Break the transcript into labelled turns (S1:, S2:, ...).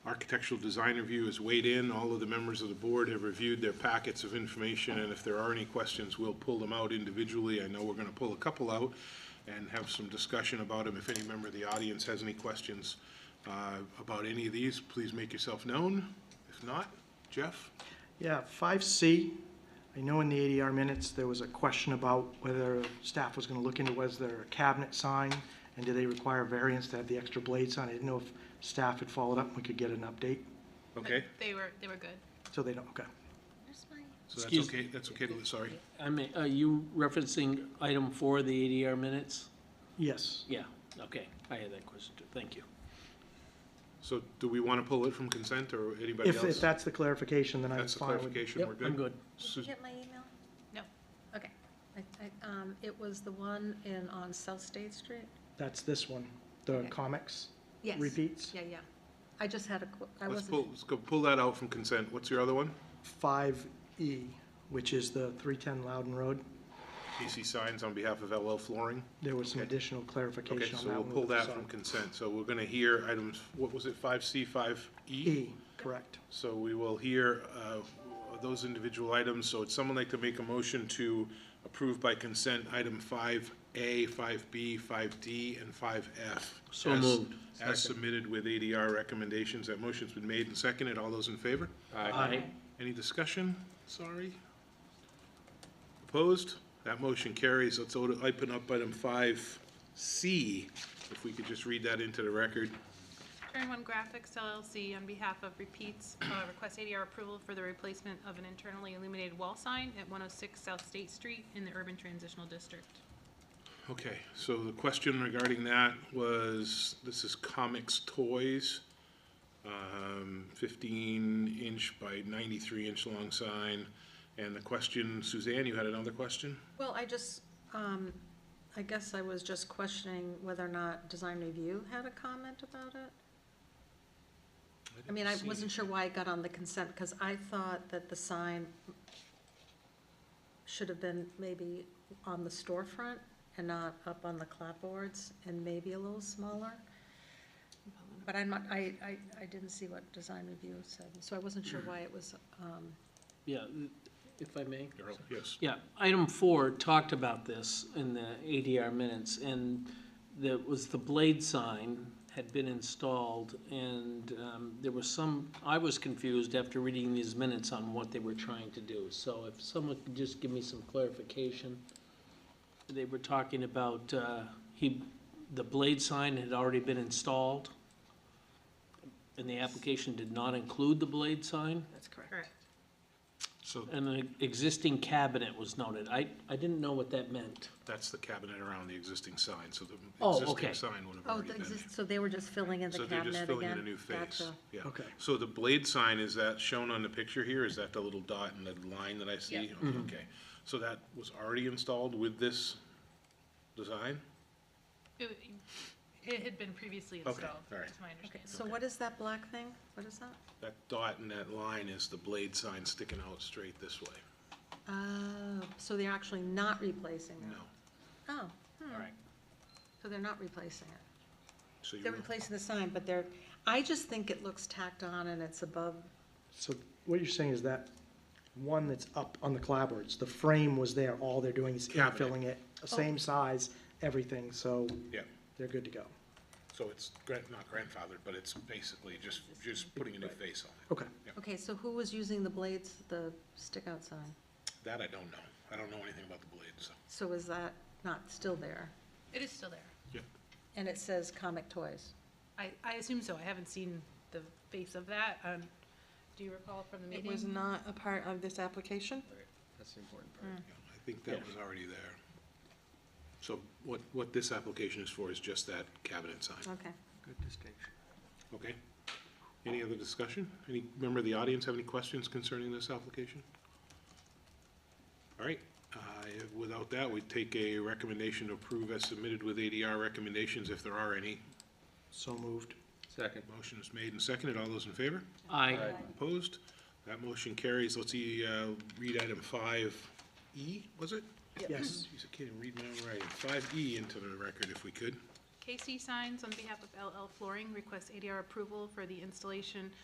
S1: architectural design review has weighed in. All of the members of the board have reviewed their packets of information, and if there are any questions, we'll pull them out individually. I know we're going to pull a couple out and have some discussion about them. If any member of the audience has any questions uh, about any of these, please make yourself known. If not, Jeff?
S2: Yeah, five C, I know in the ADR minutes, there was a question about whether staff was gonna look into, was there a cabinet sign? And do they require variance to have the extra blades on? it? I didn't know if staff had followed up and we could get an update,
S1: Okay,
S3: They were, they were good.
S2: so they don't, okay.
S1: so that's
S4: Excuse-
S1: okay, that's okay, to- sorry.
S4: I mean, are you referencing item four, the ADR minutes?
S2: Yes,
S4: Yeah, okay, I had that question too, thank you.
S1: So do we want to pull it from consent, or anybody
S2: if, if
S1: else?
S2: that's the clarification, then I'm
S1: That's the
S2: fine with.
S1: clarification, we're
S4: Yep,
S1: good?
S4: I'm good.
S1: Sus-
S5: Get my email?
S3: No.
S5: Okay. I- I- um, It was the one in, on South State Street?
S2: That's this one, the
S5: Okay.
S2: comics
S5: Yes.
S2: repeats.
S5: Yeah, yeah. I just had a, qu- I
S1: Let's
S5: wasn't.
S1: pull, let's go pull that out from consent. What's your other one?
S2: Five E, which is the three-ten Loudon Road,
S1: PC Signs on behalf of LL Flooring.
S2: there was some
S1: Okay.
S2: additional
S1: Okay,
S2: clarification on
S1: so
S2: that
S1: we'll
S2: one.
S1: pull
S2: with the
S1: that from
S2: sign.
S1: consent. So we're gonna hear items, what was it, five C, five E?
S2: E, correct.
S1: So we will hear uh, those individual items. So would someone like to make a motion to approve by consent item five A, five B, five D, and five F?
S4: So moved.
S1: As submitted with ADR recommendations. That motion's been made and seconded. All those in favor?
S4: Aye.
S1: Any discussion? Sorry. Opposed? That motion carries. Let's o- open up item five C. If we could just read that into the record.
S3: Turn One Graphics LLC on behalf of Repeats, uh, request ADR approval for the replacement of an internally illuminated wall sign at 106 South State Street in the Urban Transitional District.
S1: Okay, so the question regarding that was, this is Comics Toys, um, fifteen inch by ninety-three inch long sign. And the question, Suzanne, you had another question?
S5: Well, I just, um, I guess I was just questioning whether or not Design Review had a comment about it. I mean, I wasn't sure why it got on the consent, because I thought that the sign should have been maybe on the storefront and not up on the clapboards and maybe a little smaller. But I'm not, I, I, I didn't see what Design Review said, so I wasn't sure why it was, um,
S4: Yeah, if I may.
S1: Darrell, yes.
S4: Yeah, item four talked about this in the ADR minutes, and that was the blade sign had been installed, and um, there was some, I was confused after reading these minutes on what they were trying to do. So if someone could just give me some clarification. They were talking about, uh, he, the blade sign had already been installed, and the application did not include the blade sign?
S5: that's correct.
S3: Correct.
S1: So
S4: And an e, existing cabinet was noted. I, I didn't know what that meant.
S1: that's the cabinet around the existing sign, so the
S4: Oh,
S1: existing
S4: okay.
S1: sign would have
S5: Oh,
S1: already
S5: the
S1: been there.
S5: exist- so they were just filling in the
S1: So
S5: cabinet
S1: they're
S5: again?
S1: just filling in a new face,
S5: Gotcha.
S1: yeah.
S2: Okay.
S1: So the blade sign, is that shown on the picture here? Is that the little dot and the line that I see?
S3: Yep.
S1: Okay, Okay, so that was already installed with this design?
S3: It it had been previously
S1: Okay,
S3: installed,
S1: all right.
S3: is my
S5: Okay,
S3: understanding.
S5: so what is that black thing? What is that?
S1: That dot and that line is the blade sign sticking out straight this way?
S5: Oh, so they're actually not replacing it?
S1: No.
S5: Oh,
S4: All right.
S5: so they're not replacing it.
S1: So you
S5: They're
S1: were-
S5: replacing the sign, but they're, I just think it looks tacked on and it's above,
S2: So what you're saying is that one that's up on the clapboards, the frame was there, all they're doing is
S1: Cabinet.
S2: infilling it, same size, everything, so
S1: Yeah,
S2: they're good to go.
S1: so it's gran- not grandfathered, but it's basically just, just putting a new face on it.
S2: Okay,
S5: okay, so who was using the blades, the stick-out sign?
S1: That I don't know. I don't know anything about the blade, so.
S5: So is that not still there?
S3: It is still there.
S1: Yeah.
S5: And it says Comic Toys.
S3: I, I assume so. I haven't seen the face of that. Um, Do you recall from the
S6: It
S3: meeting?
S6: was not a part of this application?
S7: That's the important part.
S1: Yeah, I think that was already there. So what, what this application is for is just that cabinet sign,
S5: Okay.
S7: Good distinction.
S1: okay? Any other discussion? Any member of the audience have any questions concerning this application? All right, uh, without that, we take a recommendation to approve as submitted with ADR recommendations, if there are any.
S2: so moved.
S7: Second.
S1: Motion is made and seconded. All those in favor?
S4: I,
S1: Opposed? That motion carries. Let's see, uh, read item five E, was it?
S2: Yes.
S1: Jeez, I can't even read my own writing. Five E into the record if we could.
S3: KC Signs, on behalf of LL Flooring, requests ADR approval for the installation